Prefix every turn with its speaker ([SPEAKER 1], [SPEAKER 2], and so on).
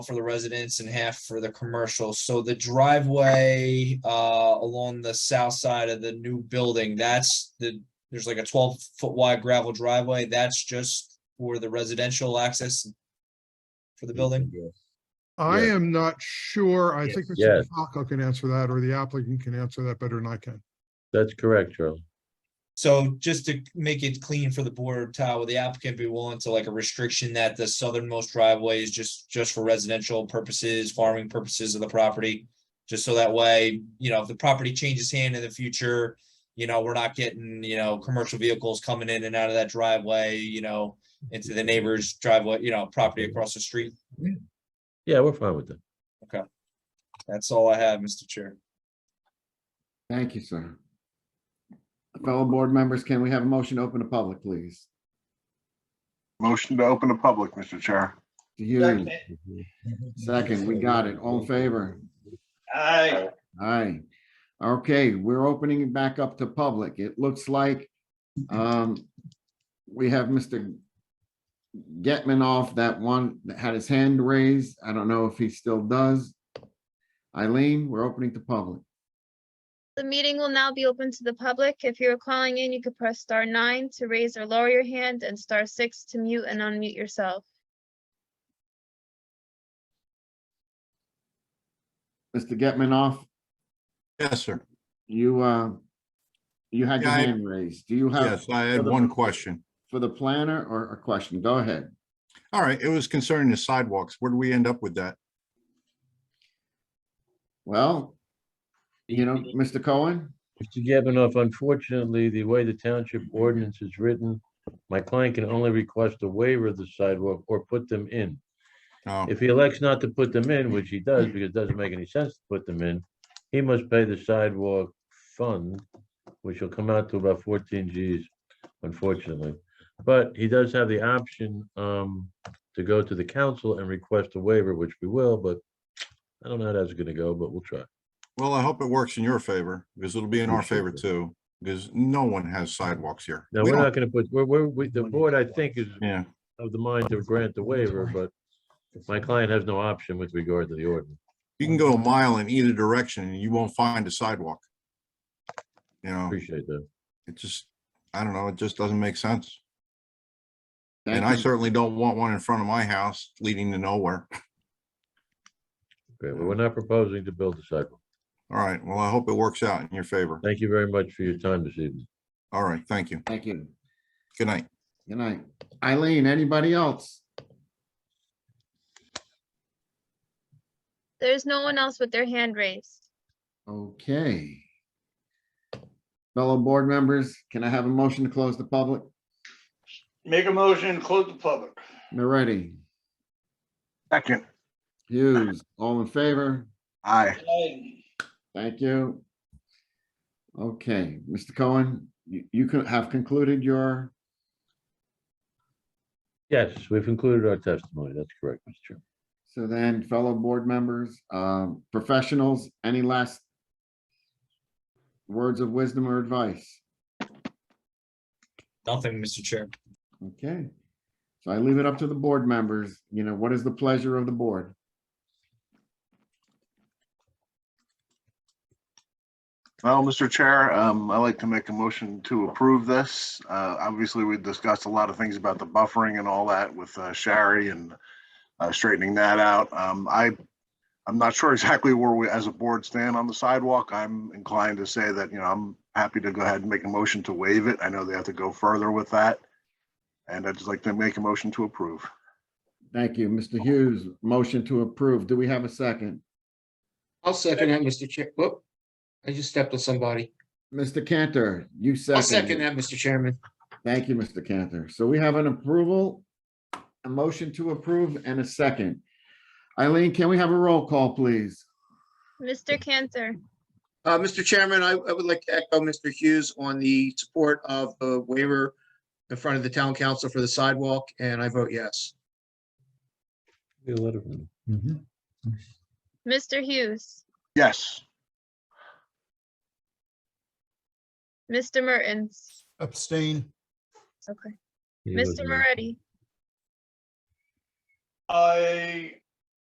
[SPEAKER 1] for the residents and half for the commercial. So the driveway uh along the south side of the new building, that's the, there's like a twelve foot wide gravel driveway. That's just for the residential access for
[SPEAKER 2] Mm-hmm.
[SPEAKER 1] the building.
[SPEAKER 3] I
[SPEAKER 2] Yeah.
[SPEAKER 3] am not sure. I
[SPEAKER 2] Yes.
[SPEAKER 3] think Mr.
[SPEAKER 2] Yes.
[SPEAKER 3] Falco can answer that, or the applicant can answer that better than I can.
[SPEAKER 2] That's correct, Charlie.
[SPEAKER 1] So just to make it clean for the board, Ty, would the applicant be willing to like a restriction that the southernmost driveway is just, just for residential purposes, farming purposes of the property? Just so that way, you know, if the property changes hand in the future, you know, we're not getting, you know, commercial vehicles coming in and out of that driveway, you know, into the neighbor's driveway, you know, property across the street.
[SPEAKER 2] Yeah, we're fine with that.
[SPEAKER 1] That's all I have, Mr. Chair.
[SPEAKER 4] Thank you, sir. Fellow board members, can we have a motion to open to public, please?
[SPEAKER 5] Motion to open the public, Mr. Chair.
[SPEAKER 4] The hearing. Second, we got it. All in favor?
[SPEAKER 6] Aye.
[SPEAKER 4] Aye. Okay, we're opening it back up to public. It looks like um, we have Mr. Getman off that one that had his hand raised. I don't know if he still does. Eileen, we're opening to public.
[SPEAKER 7] The meeting will now be open to the public. If you are calling in, you could press star nine to raise or lower your hand and star six to mute and unmute yourself.
[SPEAKER 4] Mr. Getman off,
[SPEAKER 8] Yes, sir.
[SPEAKER 4] you uh, you had your
[SPEAKER 8] Yeah, I-
[SPEAKER 4] hand raised. Do you
[SPEAKER 2] Uh-huh.
[SPEAKER 4] have
[SPEAKER 8] Yes, I had one question.
[SPEAKER 4] for the planner or a question? Go ahead.
[SPEAKER 8] All right, it was concerning the sidewalks. Where do we end up with that?
[SPEAKER 4] Well, you know, Mr. Cohen,
[SPEAKER 2] Mr. Gavinoff, unfortunately, the way the township ordinance is written, my client can only request a waiver of the sidewalk or put them in.
[SPEAKER 8] Oh,
[SPEAKER 2] If he elects not to put them in, which he does because it doesn't make any sense to put them in, he must pay the sidewalk fund, which will come out to about fourteen Gs, unfortunately. But he does have the option um to go to the council and request a waiver, which we will, but I don't know how that's gonna go, but we'll try.
[SPEAKER 8] well, I hope it works in your favor because it'll be in our favor too, because no one has sidewalks here.
[SPEAKER 2] Now,
[SPEAKER 8] We
[SPEAKER 2] we're
[SPEAKER 8] don't-
[SPEAKER 2] not gonna put, we're, we're, we- the board, I think, is
[SPEAKER 8] Yeah,
[SPEAKER 2] of the mind to grant the waiver, but my client has no option with regard to the ordinance.
[SPEAKER 8] you can go a mile in either direction and you won't find a sidewalk. You know,
[SPEAKER 2] Appreciate that.
[SPEAKER 8] it just, I don't know, it just doesn't make sense. And I
[SPEAKER 4] thank you.
[SPEAKER 8] certainly don't want one in front of my house leading to nowhere.
[SPEAKER 2] Great. Well, we're not proposing to build a sidewalk.
[SPEAKER 8] All right, well, I hope it works out in your favor.
[SPEAKER 2] Thank you very much for your time this evening.
[SPEAKER 8] All right, thank you.
[SPEAKER 4] Thank you.
[SPEAKER 8] Good night.
[SPEAKER 4] Good night. Eileen, anybody else?
[SPEAKER 7] There is no one else with their hand raised.
[SPEAKER 4] Okay. Fellow board members, can I have a motion to close the public?
[SPEAKER 6] Make a motion, and close the public.
[SPEAKER 4] Moretti,
[SPEAKER 5] Second.
[SPEAKER 4] Hughes, all in favor?
[SPEAKER 5] Aye.
[SPEAKER 6] Aye.
[SPEAKER 4] Thank you. Okay, Mr. Cohen, you, you could have concluded your,
[SPEAKER 2] Yes, we've included our testimony. That's correct, Mr. Chairman.
[SPEAKER 4] so then fellow board members, um, professionals, any last words of wisdom or advice?
[SPEAKER 1] Nothing, Mr. Chair.
[SPEAKER 4] Okay, so I leave it up to the board members, you know, what is the pleasure of the board?
[SPEAKER 5] Well, Mr. Chair, um, I'd like to make a motion to approve this. Uh, obviously, we discussed a lot of things about the buffering and all that with uh, Shari and uh, straightening that out. Um, I, I'm not sure exactly where we, as a board, stand on the sidewalk. I'm inclined to say that, you know, I'm happy to go ahead and make a motion to waive it. I know they have to go further with that. And I'd just like to make a motion to approve.
[SPEAKER 4] Thank you, Mr. Hughes, motion to approve, do we have a second?
[SPEAKER 9] I'll second that, Mr. Chair. Whoop. I just stepped on somebody.
[SPEAKER 4] Mr. Cantor, you
[SPEAKER 9] I'll second
[SPEAKER 4] second,
[SPEAKER 9] that, Mr. Chairman.
[SPEAKER 4] thank you, Mr. Cantor, so we have an approval, a motion to approve and a second. Eileen, can we have a roll call, please?
[SPEAKER 7] Mr. Cantor,
[SPEAKER 9] Uh, Mr. Chairman, I, I would like to echo Mr. Hughes on the support of the waiver in front of the town council for the sidewalk, and I vote yes.
[SPEAKER 2] Get a letter from them.
[SPEAKER 7] Mr. Hughes,
[SPEAKER 5] Yes.
[SPEAKER 7] Mr. Mertens,
[SPEAKER 10] Abstain.
[SPEAKER 7] okay,
[SPEAKER 2] He
[SPEAKER 7] Mr.
[SPEAKER 2] Mm-hmm. wasn't there.
[SPEAKER 7] Moretti,
[SPEAKER 6] I